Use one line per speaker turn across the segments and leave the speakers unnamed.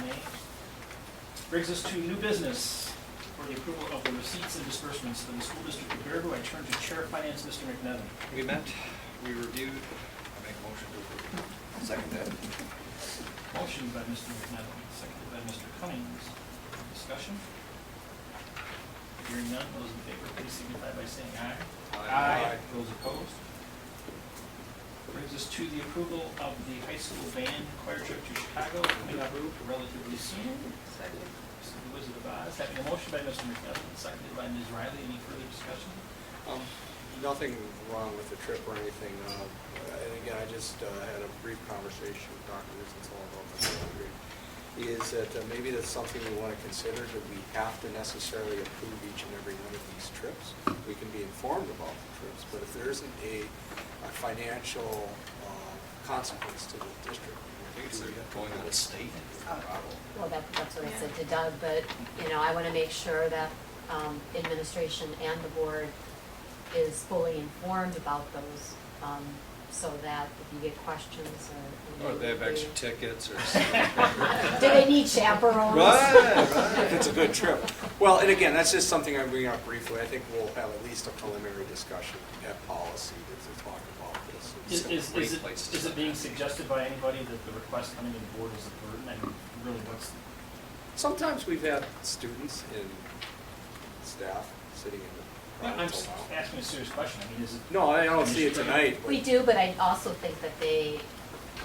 May. Brings us to new business for the approval of the receipts and disbursements of the school district of Baraboo. I turn to Chair of Finance, Mr. McNevin.
We met, we reviewed, I make a motion to approve. Second that.
Motion by Mr. McNevin, seconded by Mr. Cummings. Discussion? Hearing none, those in favor, please signify by saying aye.
Aye.
Those opposed? Brings us to the approval of the high school band choir trip to Chicago, coming up relatively soon.
Second.
This is The Wizard of Oz, having a motion by Mr. McNevin, seconded by Ms. Riley. Any further discussion?
Um, Nothing wrong with the trip or anything. uh, And again, I just uh, had a brief conversation with Dr. Rizenthal about this. earlier, Is that uh, maybe that's something we want to consider, that we have to necessarily approve each and every one of these trips. We can be informed about the trips, but if there isn't a a financial uh, consequence to the district.
I think it's like going out of state.
Well, that, that's what I said to Doug, but, you know, I want to make sure that um, administration and the board is fully informed about those, um, so that if you get questions or.
Or Oh, they have extra tickets or something.
Do they need chaperones?
Right, right.
If it's a good trip. Well, and again, that's just something I'm bringing up briefly. I think we'll have at least a preliminary discussion at policy to talk about this.
Is,
It's
is,
a great
is it,
place to
is it
start.
being suggested by anybody that the request coming to the board is a burden? I mean, really, what's,
Sometimes we've had students and staff sitting in the.
I'm just asking a serious question. I mean, is it?
No, I don't see it tonight. but-
We do, but I also think that they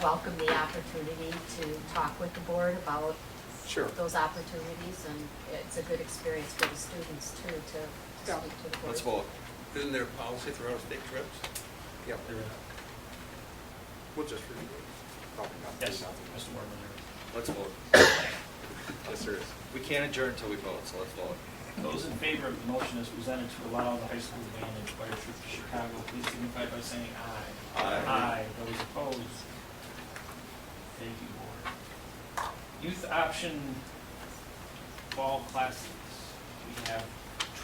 welcome the opportunity to talk with the board about
Sure.
those opportunities, and it's a good experience for the students too, to
Yeah.
to speak to the board.
Let's vote.
Isn't there a policy for out-of-state trips?
Yeah,
There is.
we'll just review it. Probably not.
Yes,
Nothing.
Mr. Warman, there
Let's vote.
Yes, there is.
We can't adjourn until we vote, so let's vote.
is. Those in favor of the motion as presented to allow the high school band and choir trip to Chicago, please signify by saying aye.
Aye.
Aye, those opposed. Thank you, board. Youth option fall classes. We have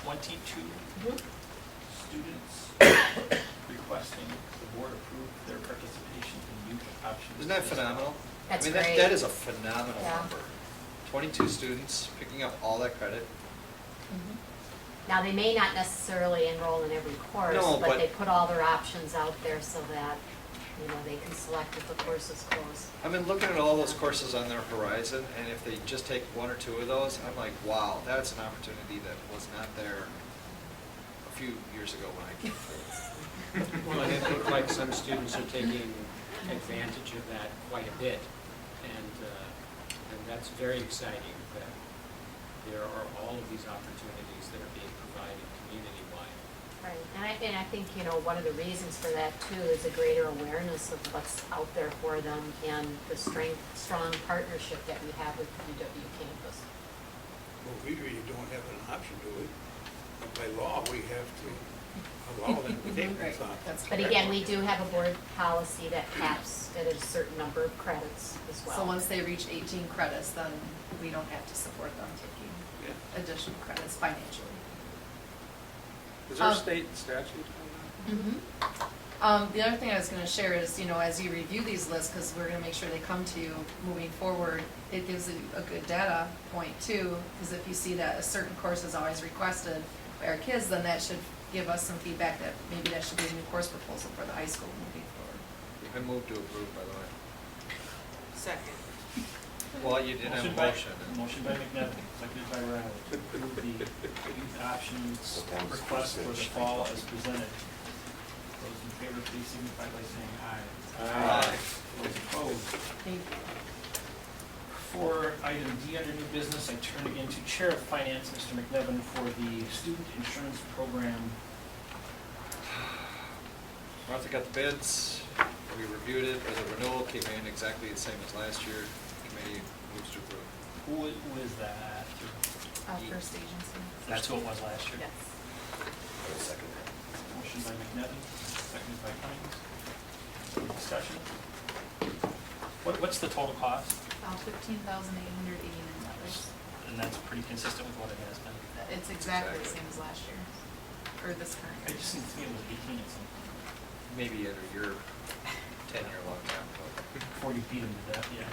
twenty-two
Mhm.
students requesting the board approve their participation in youth options.
Isn't that phenomenal?
That's
I mean,
great.
that, that is a phenomenal
Yeah.
number. Twenty-two students picking up all that credit.
Mm-hmm.
Now, they may not necessarily enroll in every course,
No, but-
but they put all their options out there so that, you know, they can select if the course is closed.
I've been looking at all those courses on their horizon, and if they just take one or two of those, I'm like, wow, that's an opportunity that was not there a few years ago when I came through.
Well, and it looks like some students are taking advantage of that quite a bit, and, uh, and that's very exciting, that there are all of these opportunities that are being provided community-wide.
Right. And I, and I think, you know, one of the reasons for that too is a greater awareness of what's out there for them and the strength, strong partnership that we have with UW campus.
Well, we really don't have an option to it. By law, we have to allow them to
Mm-hmm.
take this option.
But again, we do have a board policy that caps at a certain number of credits as well.
So once they reach 18 credits, then we don't have to support them taking
Yeah.
additional credits financially.
Is there a
Um, Mm-hmm.
state statute on
Um, The other thing I was going to share is, you know, as you review these lists, because we're going to make sure they come to you moving forward, it gives you a good data point too, because if you see that a certain course is always requested by our kids, then that should give us some feedback that maybe that should be a new course proposal for the high school moving forward.
I moved to approve, by the
Second.
way. Well, you didn't have a
by-
motion.
Motion by McNevin, seconded by Riley, to approve the youth options request for the fall as presented. Those in favor, please signify by saying aye.
Aye.
Those opposed.
Thank you.
For item D under new business, I turn again to Chair of Finance, Mr. McNevin, for the student insurance program
Martha got the bids, we reviewed it, the renewal came in exactly the same as last year. Committee moves to approve.
Who was, who is that?
Uh, First agency.
That's who it was last year.
Yes.
second
Motion by McNevin, seconded by Cummings. Discussion. What, what's the total cost?
Fifteen thousand eight hundred eighty-nine dollars.
And that's pretty consistent with what it has been.
It's exactly the same as last year, or this
I
current year.
just seemed to me it was eighteen and something.
Maybe at your ten-year long time ago.
Before you beat him to death, yeah.